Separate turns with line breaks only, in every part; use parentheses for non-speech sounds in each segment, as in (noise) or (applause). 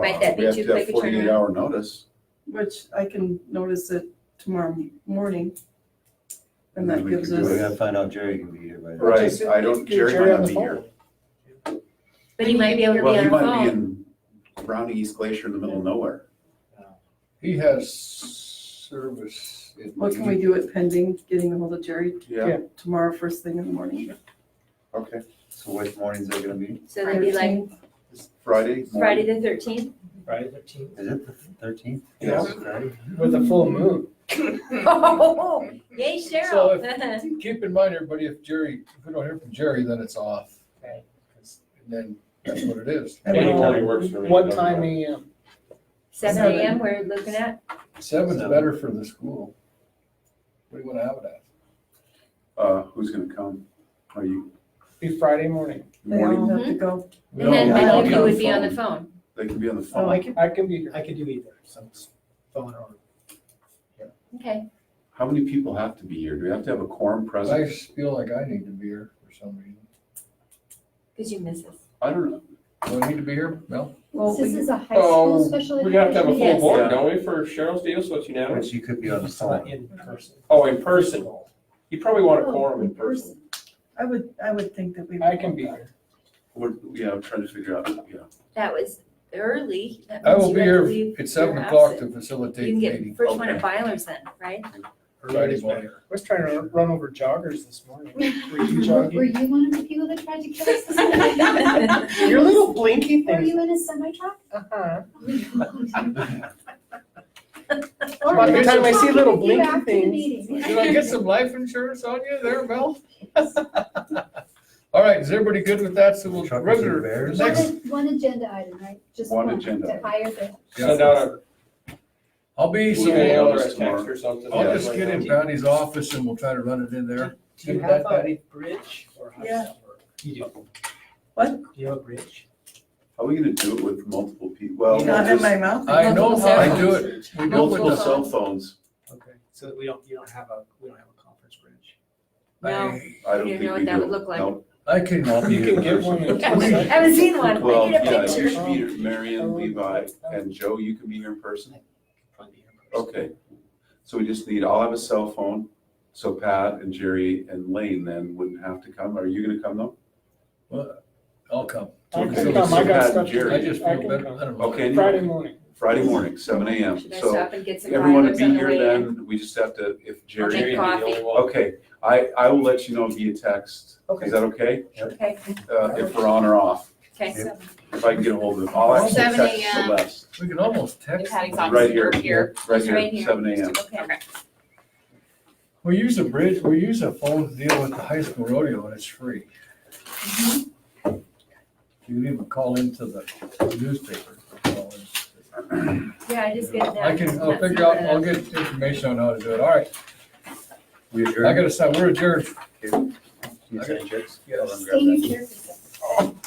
Might that be
Uh, We have
too
to have
quick a turnaround?
Forty-eight hour notice,
which I can notice it tomorrow morning. And
And then
that
we can
gives
do
We
it.
us,
gotta find out Jerry can be here by then.
right,
Just
I don't,
get
Jerry
Jerry
might
on
not
the
be
phone.
here.
But he might be able to be
Well, he
on
might be
the phone.
in Browning East Glacier in the middle of nowhere.
He has service. in-
what can we do it pending getting ahold of Jerry
Yeah.
tomorrow first thing in the morning?
Okay,
So which morning's that gonna be?
So that'd be like
13th,
Friday
Friday
morning.
the (laughs) thirteenth.
Friday the thirteenth,
Is it the thirteenth?
Yeah.
Friday?
with a full moon.
Oh, (laughs) Yay,
So
Cheryl.
Keep in mind, everybody, if Jerry, if we don't hear from Jerry, then it's off.
Right.
And then that's what it is.
and we'll-
Anytime works for me.
What time AM?
Seven
Seven.
AM, we're looking at.
Seven's better for the school. What do you wanna have it at?
Uh, who's gonna come? Are you,
Be Friday morning.
They all
morning?
have
Mm-hmm.
to go.
And
We don't-
then
No,
many
I'll
of
be
you
on
would
the
be on the phone.
They can be on the
Oh,
phone.
I can, I can be here.
I could do either, so it's phone or.
Okay.
How many people have to be here? Do we have to have a quorum
I
present?
just feel like I need to be here for some reason.
Cause you miss us.
I don't know.
Do I need to be here? Mel?
Well,
This
we-
is a high
Oh,
school special education.
We have to have a full
Yes.
board, don't we, for Cheryl's deal, so it's
But
unanimous?
you could be on the
It's not
phone.
In person. Oh, in person. You probably want a quorum in person.
I would, I would think that we. would
I can
want
be
that.
here.
We're, yeah, I'm trying to figure out, yeah.
That was early. That
I
means
will
you
be
have to
here
leave
at
your
seven
house
o'clock
at-
to
You
facilitate
can
the
get
meeting.
first one at
Okay.
Byler's then, (laughs) right?
Friday
(laughs)
morning.
better.
I was trying to run over joggers this
(laughs)
morning. Were you
Were
jogging?
you one of the people that tried to kill us this morning?
(laughs) Your little blinky
Were
thing.
you in a semi truck?
Uh-huh.
By
the time I see little blinky
You
things.
after the
Did
meeting.
I get
(laughs)
some life insurance on you there, Mel? All right, is everybody good with that? So we'll,
Truckers and
regular,
bears.
(laughs) next,
One, one agenda item, right? Just
One
one,
agenda
to
item.
hire the.
Send out a
I'll be, uh,
email or a
Yeah.
text or something.
I'll just get in Patty's office and we'll try to run it in there.
Do you have a bridge or how does that work? You do.
What?
Do you have a bridge?
How are we gonna do it with multiple people? Well, we'll
Not in my
just,
mouth.
I know how I do
Multiple
it. We
we'll
go
put
with
the
the,
cell phones.
Okay, so that we don't, you don't have a, we don't have a conference bridge.
No.
I,
I don't
You
think
know
we
what that
do.
would look like.
Nope.
I can. I'll be
You can
here
get
first.
one
(laughs)
in two
I
seconds.
haven't seen one. I
Well,
need a
yeah,
picture.
you should be, here. Marion, Levi, and Joe, you can be here in person.
Probably be here first.
Okay. So we just need, I'll have a cell phone, so Pat and Jerry and Lane then wouldn't have to come. Are you gonna come though?
I'll come.
I
(laughs)
can
So-
come,
so
I got
Pat
stuff
and
to do.
Jerry.
I just
I
feel
can
better.
come.
I don't know.
Okay,
Friday
anyway,
morning.
Friday morning, seven AM.
Should I
So
stop and get some
everyone would
Byler's
be
on the
here
way in?
then. We just have to, if
I'll
Jerry,
take coffee.
okay, I, I will let you know via text.
Okay.
Is that okay?
Okay,
Uh, if we're on or off.
okay.
Yeah.
If I can get a hold of it, I'll actually
7
text
a.m.
Celeste,
We can almost
If
text.
Patty's
them.
office
right here,
were here.
right
Right
here,
here.
seven AM.
Okay.
We use a bridge, we use a phone to deal with the high school rodeo and it's free. You can even call into the newspaper. Call in.
Yeah, I just get that.
I can, I'll figure out, I'll get information on how to do it. All right,
We
I
adjourn.
gotta sign, we're adjourned.
You sign checks?
Yes.
I'll grab
Stay
that.
in your chair.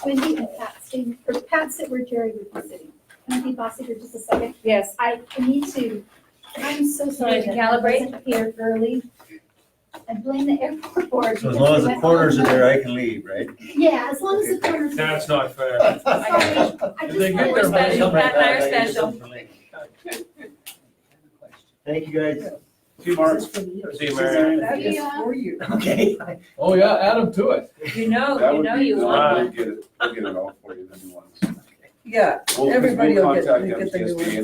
Wendy and Pat, stay, or Pat, sit where Jerry would be sitting. Can I be bossy for just a second?
Yes.
I I need to, I'm so sorry
need to
that I
calibrate?
wasn't here early. I blame the airport board.
So as
because
long as
we
the
went
corners are
all
there, I can leave, right?
night. Yeah, as long as the corners. are there.
not fair.
Sorry, I
Did they
just
get their
wanted to-
money? Special, Pat and I are special.
Thank you, guys.
See, Mark,
This is for you.
See you, Mary.
That is
Yeah.
for you.
Okay.
Oh, yeah, add them to it.
You know,
that
Oh, you
would
know
be-
you
no,
want
We'll
one.
get it, we'll get it all for you, then you want.
Yeah,
We'll-
Everybody
we'll
will get-
contact
get the new
MTSBA
ones.